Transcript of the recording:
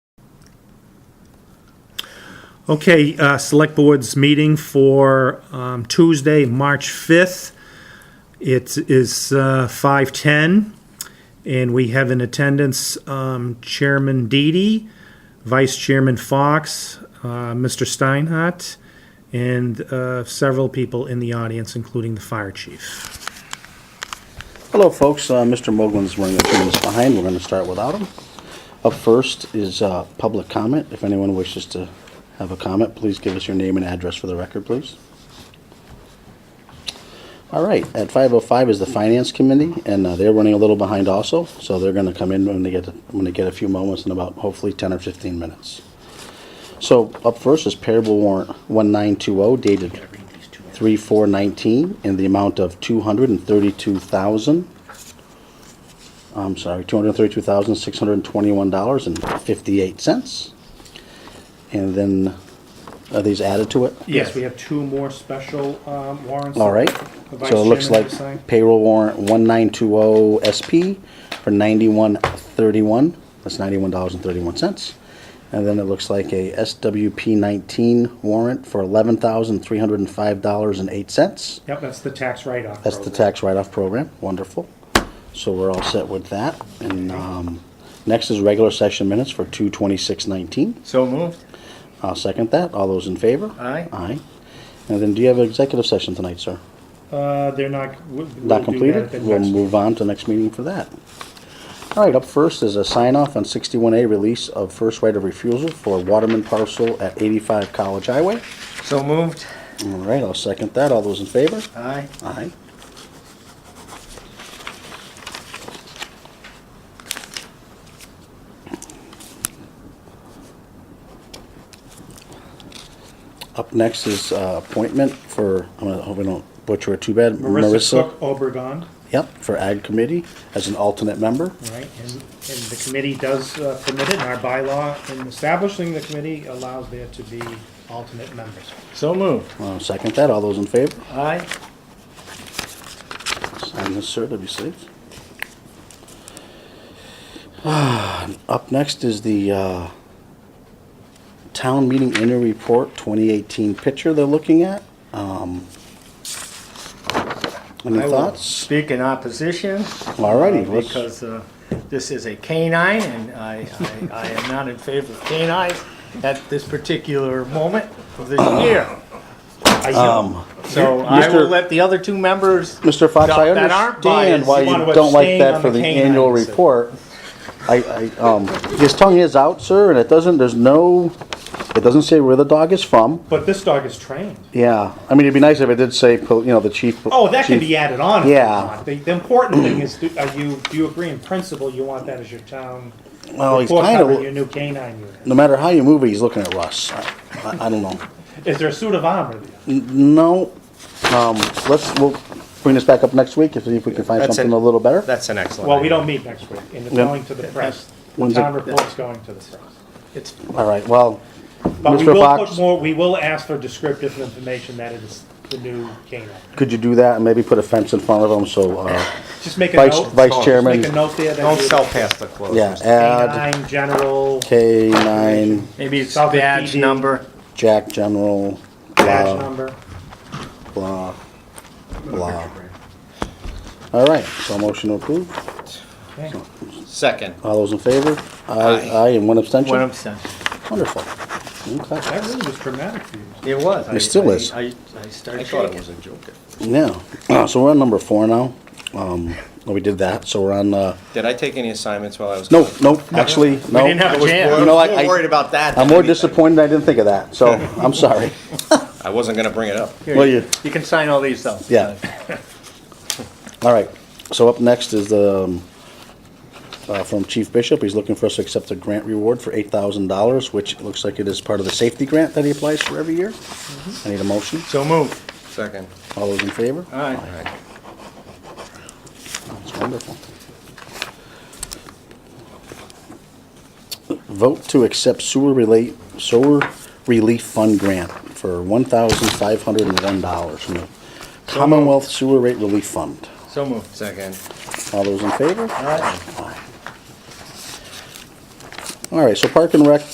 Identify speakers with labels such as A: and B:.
A: Okay, uh, Select Board's meeting for um, Tuesday, March 5th. It is uh, 5:10, and we have in attendance um, Chairman Deedy, Vice Chairman Fox, uh, Mr. Steinhardt, and uh, several people in the audience, including the fire chief.
B: Hello, folks. Uh, Mr. Mogul's running a few minutes behind. We're going to start without him. Up first is uh, public comment. If anyone wishes to have a comment, please give us your name and address for the record, please. All right, at 5:05 is the Finance Committee, and uh, they're running a little behind also, so they're going to come in when they get, when they get a few moments in about hopefully 10 or 15 minutes. So up first is payable warrant 1920 dated 3/4/19 in the amount of 232,000, I'm sorry, $232,621.58. And then, are these added to it?
A: Yes, we have two more special um, warrants.
B: All right,
A: The vice
B: so it looks
A: chairman
B: like
A: to sign.
B: payroll warrant 1920 SP oh for 9131, that's $91.31. And then it looks like a SWP 19 warrant for $11,305.08.
A: Yep, that's the tax write-off.
B: That's the
A: program.
B: tax write-off program, wonderful. So we're all set with that. And um, next is regular session minutes for 22619.
C: So moved.
B: I'll second that. All those in favor?
C: Aye.
B: Aye. And then do you have an executive session tonight, sir?
A: Uh, They're not, we'll we'll do that
B: Not
A: at the
B: completed? We'll
A: next-
B: move on to the next meeting for that. All right, up first is a sign-off on 61A release of first right of refusal for Waterman parcel at 85 College Highway.
C: So moved.
B: All right, I'll second that. All those in favor?
C: Aye.
B: Aye. Up next is uh, appointment for, I'm gonna, hope I don't butcher it too bad.
A: Marissa Cook Obregon,
B: Yep, for Ag Committee as an alternate member.
A: right, and, and the committee does uh, permit it, and our bylaw in establishing the committee allows there to be alternate members.
C: So moved.
B: I'll Uh, second that. All those in favor?
C: Aye.
B: Sign this, sir, to be safe. Up next is the uh, Town Meeting Annual Report 2018 picture they're looking at. Um, Any
C: I will
B: thoughts?
C: Speak in opposition.
B: Alrighty,
C: uh,
B: let's-
C: Because uh, this is a canine, and I, I, I am not in favor of canines at this particular moment of this year.
A: I yield.
B: Um,
C: So I will
B: Mr.
C: let the other two members.
B: Mr. Fox, I
C: that aren't
B: understand
C: biased,
B: why
C: you want
B: you
C: to
B: don't like
C: abstain
B: that
C: on
B: for
C: the
B: the
C: canine,
B: annual
C: so-
B: report. I, I, um, his tongue is out, sir, and it doesn't, there's no, it doesn't say where the dog is from.
A: But this dog is trained.
B: Yeah, I mean, it'd be nice if it did say, you know, the chief.
A: Oh, that can
B: chief-
A: be added on. if you
B: Yeah.
A: want. The, the important thing is, do- are you, do you agree in principle you want that as your town?
B: Well, he's
A: report
B: kinda
A: card or
B: lo-
A: Your new canine unit.
B: No matter how you move it, he's looking at Russ. I, I, I don't know.
A: Is there a suit of armor there?
B: No, um, let's, we'll bring this back up next week if, if we can find
D: That's
B: something
D: it.
B: a little better.
D: That's an excellent.
A: Well, we
D: idea.
A: don't meet next week, and it's
B: Yeah.
A: going to the press. The
B: When's it-
A: town report's going to the press.
C: It's
B: All right, well,
A: But we
B: Mr.
A: will
B: Fox-
A: put more, we will ask for descriptive information that it is the new canine.
B: could you do that and maybe put a fence in front of him so, uh,
A: Just make a
B: vice,
A: note.
B: vice
A: Just
D: Just
A: make a
B: chairman,
A: note there
D: Don't
A: that
D: sell
A: you
D: past the close.
B: yeah, uh,
D: Mr.
B: add
A: canine general
B: K nine,
C: maybe it's
A: Southern
C: badge
A: PD.
C: number.
B: Jack General,
A: badge
B: blah,
A: number.
B: blah, blah. All right, so motion approved.
A: Okay.
D: Second.
B: All those in favor? Aye,
D: Aye.
B: aye, and one abstention?
C: What I'm saying.
B: Wonderful. Okay.
A: That really was dramatic for you.
C: It was. I-
B: It still
C: I-
B: is.
C: I, I started
D: I thought it
C: shaking.
D: was a joke.
B: Yeah, so we're on number four now. Um, well, we did that, so we're on, uh,
D: Did I take any assignments while I was?
B: no, no, actually, no.
C: didn't have a
B: I was-
C: jam.
B: You know, I,
D: am more worried
B: I,
D: about that.
B: I'm
D: than
B: more
D: anything.
B: disappointed I didn't think of that, so I'm sorry.
D: I wasn't gonna bring it up.
C: Here,
B: Well, you-
C: You can sign all these though.
B: Yeah. All right, so up next is the, um, uh, from Chief Bishop, he's looking for us to accept a grant reward for eight thousand dollars, which looks like it is part of the safety grant that he applies for every year. I need a motion,
C: So moved.
D: Second.
B: all those in favor?
D: Uh.
C: All right.
B: That's wonderful. Vote to accept sewer relate, sewer relief fund grant for one thousand five hundred and one dollars from the Commonwealth Sewer Rate Relief Fund.
C: So moved.
D: Second.
B: All those in favor?
C: All right.
B: All right, so Park and Rec